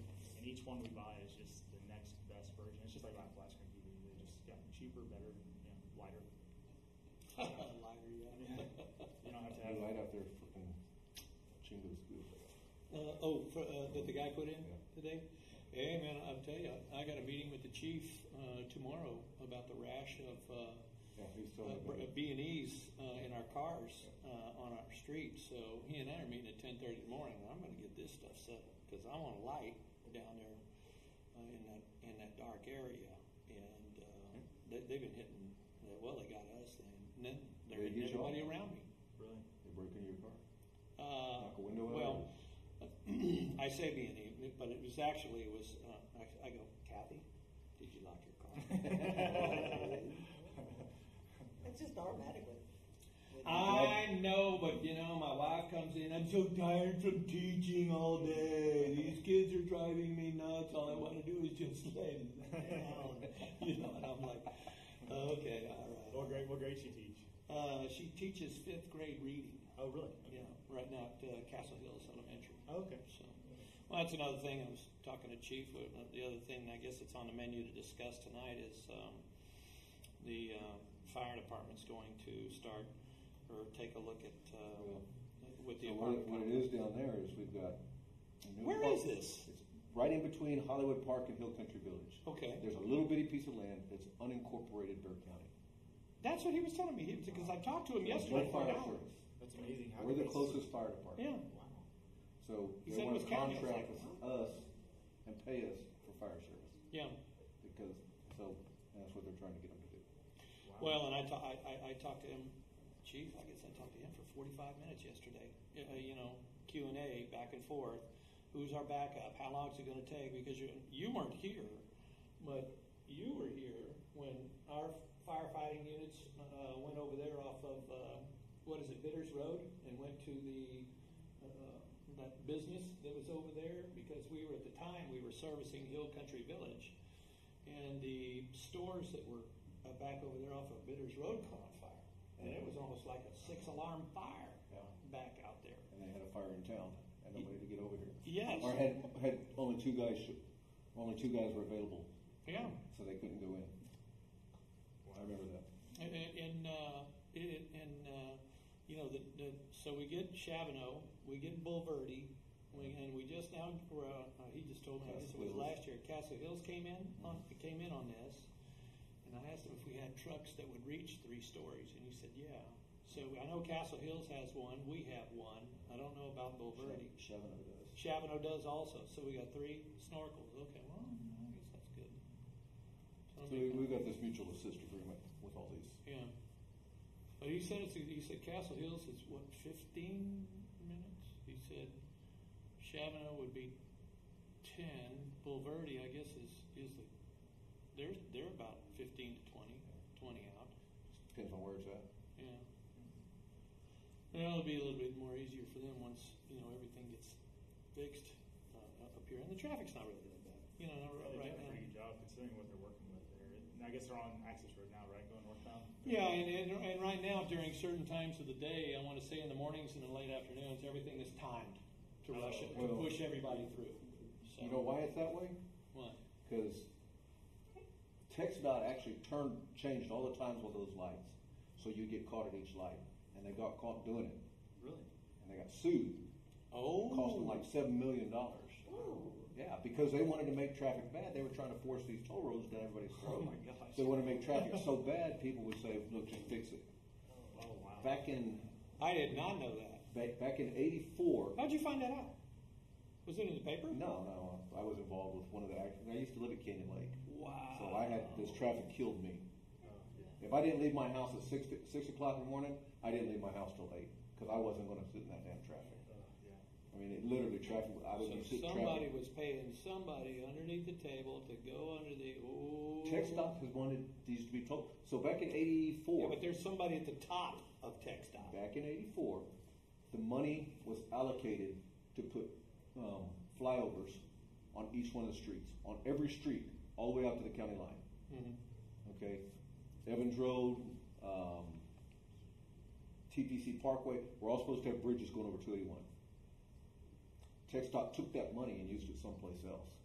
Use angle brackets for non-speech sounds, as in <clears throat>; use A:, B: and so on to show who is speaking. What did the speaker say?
A: each one we buy is just the next best version. It's just like buying a flat screen TV. They just got cheaper, better, you know, lighter.
B: Lighter, yeah.
A: You don't have to
C: New
A: have.
C: light out there, fucking Chingo's good.
B: <laughs> Uh, oh, for, uh, that the guy put in
C: Yeah.
B: today? Hey, man, I'll tell you, I got a meeting with the chief, uh, tomorrow about the rash of, uh,
C: Yeah, he's still.
B: B and E's, uh, in our cars, uh, on our street, so he and I are meeting at ten thirty in the morning, and I'm gonna get this stuff settled, cause I want a light down there, uh, in that, in that dark area, and, uh, they, they've been hitting, well, they got us, and then they're
C: They
B: hitting
C: get you all.
B: everybody around me.
A: Really? <laughs>
C: They break into your car.
B: Uh,
C: Knock a window out?
B: Well,
C: <laughs>
B: <clears throat> I say being evening, but it was actually, it was, uh, I, I go, Kathy, did you lock your car? uh,
D: It's just automatic with.
B: <laughs>
D: with-
B: I know, but you know, my wife comes in, I'm so tired from teaching all day. These kids are driving me nuts. All I want to do is just <laughs> lay down. <laughs> You know, and I'm like, okay, all
A: What
B: right.
A: grade? What grade you teach?
B: Uh, she teaches fifth grade reading,
A: Oh, really?
B: you know, right now at uh, Castle Hills Elementary.
A: Oh, okay.
B: So, well, that's another thing. I was talking to Chief. uh, The other thing I guess it's on the menu to discuss tonight is um, the uh, fire department's going to start or take a look at uh,
C: Well,
B: with the
C: So what it,
B: apartment.
C: what it is down there is we've got. a new
B: Where
C: park-
B: is this?
C: It's right in between Hollywood Park and Hill Country Village.
B: Okay,
C: There's a little bitty piece of land that's unincorporated Bear County.
B: that's what he was telling me because I talked to him yesterday
C: No
B: for
C: fire
B: an hour.
C: service.
A: That's amazing. How
C: We're the
A: did they-
C: closest fire department.
B: Yeah,
A: Wow.
C: So
B: He
C: they
B: said it
C: want
B: was
C: to
B: county. I was
C: contract
B: like,
C: with us and pay us for fire service
B: yeah.
C: because, so that's what they're trying to get them to do.
A: Wow.
B: Well, and I, ta- I, I, I talked to him, Chief. I guess I talked to him for forty-five minutes yesterday. Uh, you know, Q and A back and forth. Who's our backup? How long is it going to take? Because you you weren't here, but you were here when our firefighting units uh, went over there off of uh, what is it, Bitters Road, and went to the uh, that business that was over there because we were at the time we were servicing Hill Country Village, and the stores that were uh, back over there off of Bitters Road caught on fire, and it was almost like a six alarm fire
C: Yeah.
B: back out there.
C: and they had a fire in town and nobody to get over here.
B: Yes.
C: Or had had only two guys, sh- only two guys were available,
B: Yeah,
C: so they couldn't go in. I remember that.
B: and and, and, uh, it, and uh, you know the, the so we get Chavano, we get Bulverde. We, and we just now, were, uh, he just told me, I guess it was
C: Castle Hills.
B: last year, Castle Hills came in, on, came in on this. And I asked him if we had trucks that would reach three stories, and he said, yeah. So I know Castle Hills has one, we have one, I don't know about Bulverde.
C: Shoving over those.
B: Chavano does also, so we got three snorkels, okay, well, I guess that's good. So I
C: So we,
B: mean,
C: we've got this mutual assist agreement with all these.
B: Yeah. But he said it's, he said Castle Hills is what, fifteen minutes? He said Chavano would be ten, Bulverde, I guess, is, is the, they're, they're about fifteen to twenty, twenty out,
C: Depends on where it's at.
B: yeah. And it'll be a little bit more easier for them once, you know, everything gets fixed, uh, up here, and the traffic's not really that bad, you know,
A: Well,
B: right-
A: they've
B: right
A: done a
B: now.
A: pretty good job considering what they're working with there. And I guess they're on access road now, right? Going northbound.
B: Yeah, and, and, and right now, during certain times of the day, I wanna say in the mornings and the late afternoons, everything is timed to rush it, to
C: Well-
B: push everybody through.
C: You
B: So,
C: know why it's that way?
B: what?
C: Because TexDOT actually turned, changed all the times with those lights, so you get caught at each light, and they got caught doing it,
A: Really?
C: and they got sued. It cost them
B: Oh,
C: like seven million dollars. Yeah, because they wanted to make traffic bad, they were trying to force these toll roads down everybody's
B: Oh
C: throat.
A: Oh, my gosh.
C: They wanted to make traffic so bad, people would say, look, just fix it.
A: Oh wow.
C: Back in,
B: I did not know that.
C: back, back in eighty-four,
B: How'd you find that out? Was it in the paper?
C: no, no, I was involved with one of the, act- I used to live at Canyon Lake.
B: Wow.
C: So I had, this traffic killed me.
A: Oh, yeah.
C: If I didn't leave my house at six, six o'clock in the morning, I didn't leave my house till eight, cause I wasn't gonna sit in that damn traffic.
A: Uh, yeah.
C: I mean, it literally traffic, I was gonna
B: So
C: sit in
B: somebody
C: traffic.
B: was paying somebody underneath the table to go under the, oh.
C: Tech stop has wanted these to be told, so back in
B: Yeah,
C: eighty-four.
B: but there's somebody at the top of Tech Stop.
C: back in '84, the money was allocated to put um, flyovers on each one of the streets, on every street, all the way out to the county line.
B: Mhm.
C: Okay, Evans Road, um, TPC Parkway. We're all supposed to have bridges going over 281. TxDOT took that money and used it someplace else.